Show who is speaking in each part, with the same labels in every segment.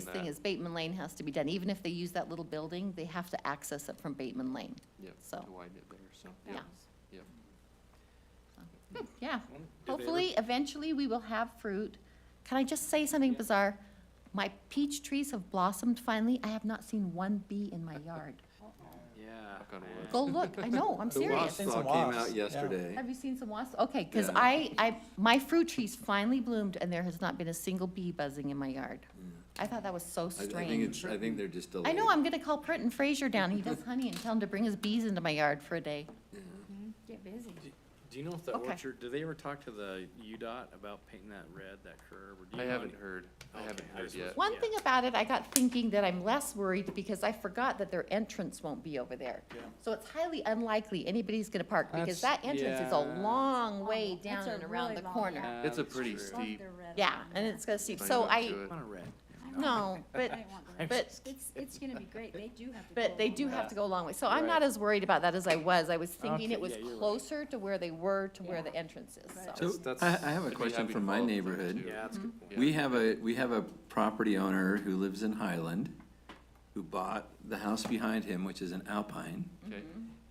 Speaker 1: biggest thing
Speaker 2: that-
Speaker 1: is Bateman Lane has to be done. Even if they use that little building, they have to access it from Bateman Lane.
Speaker 2: Yeah,
Speaker 1: So.
Speaker 2: to widen it there, so,
Speaker 1: Yeah.
Speaker 2: yeah,
Speaker 1: Yeah.
Speaker 2: they ever-
Speaker 1: Hopefully, eventually, we will have fruit. Can I just say something bizarre? My peach trees have blossomed finally. I have not seen one bee in my yard.
Speaker 3: Yeah.
Speaker 2: knock on wood.
Speaker 1: Go look. I know, I'm
Speaker 2: The
Speaker 1: serious.
Speaker 2: wasp
Speaker 4: Seen
Speaker 2: saw
Speaker 4: some
Speaker 2: came
Speaker 4: wasps,
Speaker 2: out
Speaker 4: yeah.
Speaker 2: yesterday.
Speaker 1: Have you seen some wasps? Okay, because
Speaker 2: Yeah.
Speaker 1: I, I, my fruit trees finally bloomed and there has not been a single bee buzzing in my yard. I thought that was so
Speaker 2: I I think
Speaker 1: strange.
Speaker 2: it's, I think they're just delayed.
Speaker 1: I know, I'm gonna call Britton Fraser down. He does honey and tell him to bring his bees into my yard for a day.
Speaker 5: Get busy.
Speaker 3: Do you know if the
Speaker 1: Okay.
Speaker 3: orchard, do they ever talk to the UDOT about painting that red, that curb? or do you
Speaker 2: I
Speaker 3: know
Speaker 2: haven't
Speaker 3: any-
Speaker 2: heard, I
Speaker 3: Okay,
Speaker 2: haven't
Speaker 3: I
Speaker 2: heard
Speaker 3: just was-
Speaker 2: yet.
Speaker 1: One
Speaker 3: Yeah.
Speaker 1: thing about it, I got thinking that I'm less worried because I forgot that their entrance won't be over there. So it's highly unlikely anybody's gonna park because that
Speaker 3: That's-
Speaker 1: entrance is
Speaker 3: yeah.
Speaker 1: a long way
Speaker 5: Long, it's
Speaker 1: down
Speaker 5: a
Speaker 1: and around
Speaker 5: really
Speaker 1: the
Speaker 5: long
Speaker 1: corner.
Speaker 5: walk.
Speaker 3: Yeah,
Speaker 2: It's a
Speaker 3: that's
Speaker 2: pretty
Speaker 3: true.
Speaker 2: steep.
Speaker 1: Yeah, and it's gonna steep.
Speaker 2: sign
Speaker 1: So
Speaker 2: up
Speaker 1: I,
Speaker 2: to it.
Speaker 3: Want a red.
Speaker 1: no, but, but
Speaker 5: It's, it's gonna be great. They do have to.
Speaker 1: But
Speaker 5: go
Speaker 1: they
Speaker 5: along
Speaker 1: do
Speaker 5: with
Speaker 1: have
Speaker 3: Yeah.
Speaker 1: to go a long way, so I'm not
Speaker 3: Right.
Speaker 1: as worried about that as I was, I was thinking
Speaker 3: Okay,
Speaker 1: it was
Speaker 3: yeah, you're right.
Speaker 1: closer to where they were to where
Speaker 5: Yeah.
Speaker 1: the entrance is,
Speaker 5: Right.
Speaker 1: so.
Speaker 6: So I, I have a question from my neighborhood.
Speaker 3: Yeah, that's a good point.
Speaker 6: We have a, we have a property owner who lives in Highland, who bought the house behind him, which is an Alpine,
Speaker 1: Mm-hmm.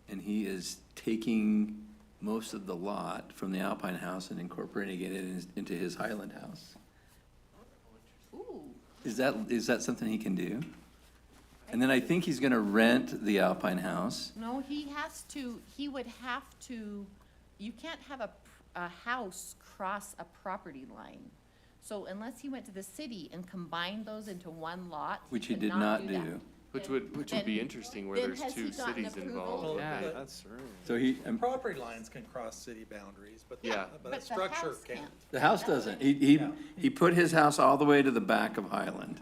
Speaker 6: and he is taking most of the lot from the Alpine house and incorporating it in- into his Highland house.
Speaker 1: Ooh,
Speaker 6: Is that, is that something he can do? And then I think he's gonna rent the Alpine house.
Speaker 1: no, he has to, he would have to, you can't have a, pr- a house cross a property line. So unless he went to the city and combined those into one lot.
Speaker 6: Which he
Speaker 1: could
Speaker 6: did not
Speaker 1: that.
Speaker 6: do.
Speaker 2: Which would, which would
Speaker 1: Then-
Speaker 2: be interesting where
Speaker 1: then
Speaker 2: there's
Speaker 1: has he
Speaker 2: two
Speaker 1: gotten
Speaker 2: cities
Speaker 1: approval?
Speaker 2: involved.
Speaker 3: Yeah,
Speaker 4: But-
Speaker 3: that's right.
Speaker 6: So he, um,
Speaker 4: Property lines can cross city boundaries, but,
Speaker 2: Yeah.
Speaker 4: the- but a
Speaker 1: But the
Speaker 4: structure
Speaker 1: house
Speaker 4: can't.
Speaker 6: the house doesn't. He, he, he put his house all the way to the back of Highland,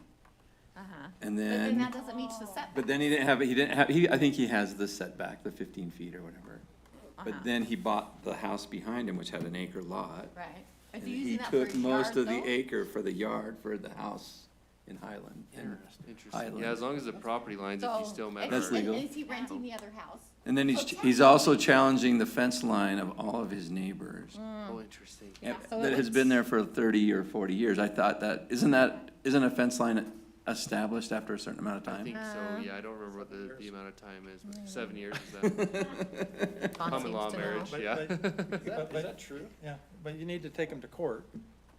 Speaker 1: Uh-huh,
Speaker 6: and
Speaker 1: but
Speaker 6: then.
Speaker 1: then that doesn't meet the setback,
Speaker 6: But then he didn't have, he didn't have, he, I think he has the setback, the fifteen feet or whatever.
Speaker 1: Uh-huh.
Speaker 6: But then he bought the house behind him, which had an acre lot.
Speaker 1: right? Are
Speaker 6: And
Speaker 1: you using
Speaker 6: he
Speaker 1: that for
Speaker 6: took
Speaker 1: a
Speaker 6: most
Speaker 1: yard,
Speaker 6: of the
Speaker 1: though?
Speaker 6: acre for the yard for the house in Highland. And,
Speaker 2: Interesting,
Speaker 6: Highland.
Speaker 2: yeah, as long as the property lines, if you
Speaker 1: So-
Speaker 2: still
Speaker 1: and-
Speaker 2: met.
Speaker 6: That's
Speaker 2: our-
Speaker 1: and-
Speaker 6: legal.
Speaker 1: And is he renting the other house?
Speaker 6: and then he's, he's also challenging the fence line of all of his neighbors.
Speaker 2: Oh, interesting.
Speaker 1: Mm, Yeah,
Speaker 6: and-
Speaker 1: so it
Speaker 6: That has
Speaker 1: would-
Speaker 6: been there for thirty or forty years. I thought that, isn't that, isn't a fence line established after a certain amount of
Speaker 2: I
Speaker 6: time?
Speaker 2: think
Speaker 1: Uh,
Speaker 2: so, yeah, I don't remember what the, the amount of time is, but seven years is that
Speaker 1: Tom
Speaker 2: common
Speaker 1: Mm. seems
Speaker 2: law
Speaker 1: to know.
Speaker 2: marriage,
Speaker 4: But-
Speaker 2: yeah.
Speaker 4: Is that true? Yeah, but you need to take them to court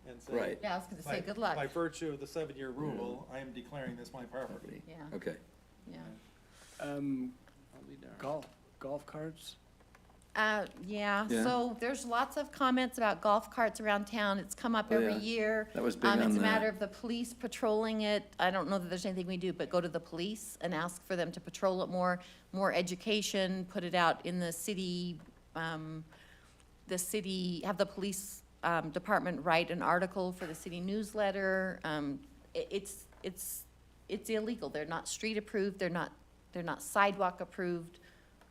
Speaker 4: and say.
Speaker 6: Right.
Speaker 1: Yeah, I was gonna
Speaker 4: "By-
Speaker 1: say, good
Speaker 4: By
Speaker 1: luck,
Speaker 4: virtue of the seven-year rule, I am declaring this my property.
Speaker 1: yeah,
Speaker 6: Okay.
Speaker 1: yeah.
Speaker 3: Um, I'll be darned.
Speaker 7: Golf, golf carts?
Speaker 1: Uh, yeah,
Speaker 6: Yeah.
Speaker 1: so there's lots of comments about golf carts around town, it's come up
Speaker 6: Oh,
Speaker 1: every
Speaker 6: yeah.
Speaker 1: year.
Speaker 6: That was big
Speaker 1: Um, it's
Speaker 6: on
Speaker 1: a matter
Speaker 6: the,
Speaker 1: of the police patrolling it, I don't know that there's anything we do, but go to the police and ask for them to patrol it more, more education, put it out in the city, um, the city, have the police, um, department write an article for the city newsletter, um, i- it's, it's, it's illegal, they're not street approved, they're not, they're not sidewalk approved,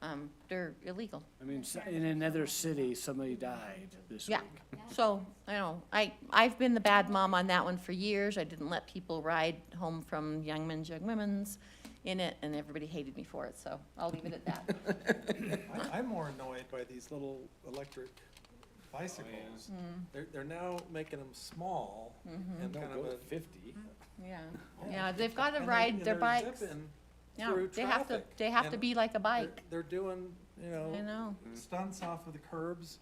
Speaker 1: um, they're illegal.
Speaker 7: I mean, s- in another city, somebody died this week.
Speaker 1: Yeah. So, I know, I, I've been the bad mom on that one for years. I didn't let people ride home from Young Men's, Young Women's in it, and everybody hated me for it, so I'll leave it at that.
Speaker 4: I- I'm more annoyed by these little electric bicycles. They're, they're now making them small and kind of a.
Speaker 3: fifty.
Speaker 1: Yeah, Mm-hmm. yeah, they've got to
Speaker 4: and they're-
Speaker 1: ride
Speaker 4: and
Speaker 1: their
Speaker 4: they're
Speaker 1: bikes.
Speaker 4: zipping
Speaker 1: Yeah,
Speaker 4: through
Speaker 1: they have to,
Speaker 4: traffic,
Speaker 1: they have to
Speaker 4: and
Speaker 1: be like a
Speaker 4: they're- Oh.
Speaker 1: bike,
Speaker 4: They're doing, you know.
Speaker 1: I know.
Speaker 4: stunts off of the curbs,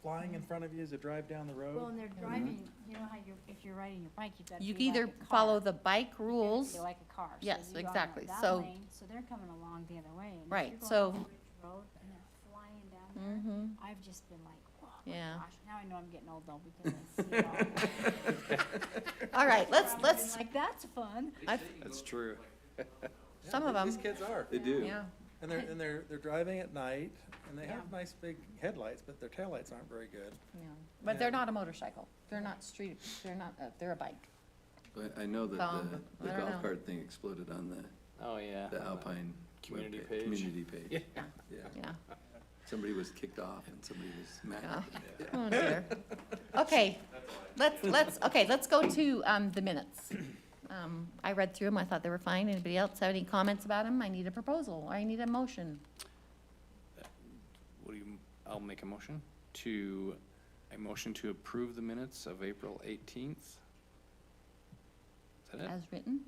Speaker 4: flying in front of you as you drive down the
Speaker 5: Well,
Speaker 4: road.
Speaker 5: and they're driving, you know how you're, if you're riding your bike, you've got to be
Speaker 1: You
Speaker 5: like a car.
Speaker 1: either follow the bike
Speaker 5: You gotta
Speaker 1: rules,
Speaker 5: Be like a car. So
Speaker 1: Yes,
Speaker 5: you are on
Speaker 1: exactly.
Speaker 5: that
Speaker 1: So-
Speaker 5: lane, So they're coming along the other way. and if
Speaker 1: Right,
Speaker 5: you're going
Speaker 1: so-
Speaker 5: down Ridge Road and they're flying down
Speaker 1: Mhm.
Speaker 5: there. I've just been like, oh my
Speaker 1: Yeah.
Speaker 5: gosh, now I know I'm getting old though because I see it all. I've
Speaker 1: All right, let's,
Speaker 5: been
Speaker 1: let's,
Speaker 5: Like, that's fun.
Speaker 3: That's true.
Speaker 1: some of
Speaker 4: These
Speaker 1: them,
Speaker 4: kids are,
Speaker 6: they do.
Speaker 1: yeah.
Speaker 4: and they're, and they're, they're driving at night, and they have nice big headlights, but their taillights aren't very good.
Speaker 1: yeah. But they're
Speaker 4: Yeah.
Speaker 1: not a motorcycle. They're not street, they're not, a- they're a bike.
Speaker 6: I, I know that
Speaker 1: Um,
Speaker 6: the,
Speaker 1: I
Speaker 6: the
Speaker 1: don't know.
Speaker 6: golf cart thing exploded on the.
Speaker 3: Oh, yeah.
Speaker 6: The Alpine.
Speaker 3: Community
Speaker 6: webpa-
Speaker 3: page.
Speaker 6: Community page,
Speaker 1: Yeah,
Speaker 6: yeah.
Speaker 1: yeah.
Speaker 6: Somebody was kicked off and somebody was mad.
Speaker 1: Oh, dear. Okay, let's, let's, okay, let's go to um, the minutes. Um, I read through them, I thought they were fine. Anybody else have any comments about them? I need a proposal, or I need a motion.
Speaker 3: What do you, I'll make a motion to, a motion to approve the minutes of April eighteenth. Is
Speaker 2: that it?
Speaker 1: as written.